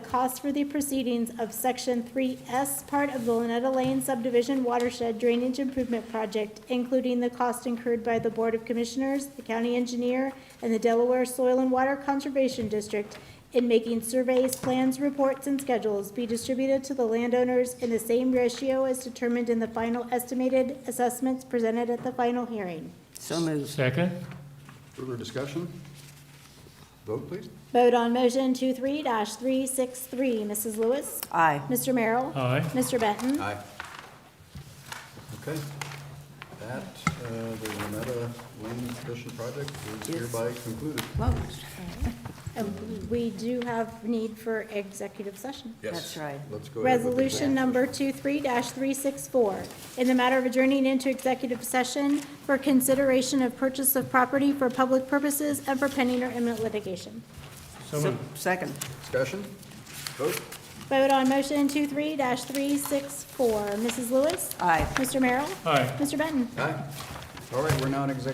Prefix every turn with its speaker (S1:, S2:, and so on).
S1: costs for the proceedings of Section 3S part of the Lynetta Lane subdivision watershed drainage improvement project, including the cost incurred by the Board of Commissioners, the county engineer, and the Delaware Soil and Water Conservation District in making surveys, plans, reports, and schedules be distributed to the landowners in the same ratio as determined in the final estimated assessments presented at the final hearing.
S2: So moved.
S3: Second?
S4: Further discussion? Vote, please.
S1: Vote on motion 23 three-six-three. Mrs. Lewis?
S2: Aye.
S1: Mr. Merrill?
S3: Aye.
S1: Mr. Benton?
S4: Aye. Okay. That, uh, the Renetta Lane Addition Project is
S2: Yes.
S4: hereby concluded.
S2: Closed.
S1: And we do have need for executive session.
S2: That's right.
S4: Let's go ahead. with the-
S1: Resolution number 23-364, in the matter of adjourning into executive session for consideration of purchase of property for public purposes and for pending or imminent litigation.
S3: So
S2: So-
S3: moved.
S2: Second.
S4: Discussion? Vote?
S1: Vote on motion 23-364. Mrs. Lewis?
S2: Aye.
S1: Mr. Merrill?
S3: Aye.
S1: Mr. Benton?
S4: Aye. All right, we're now in executive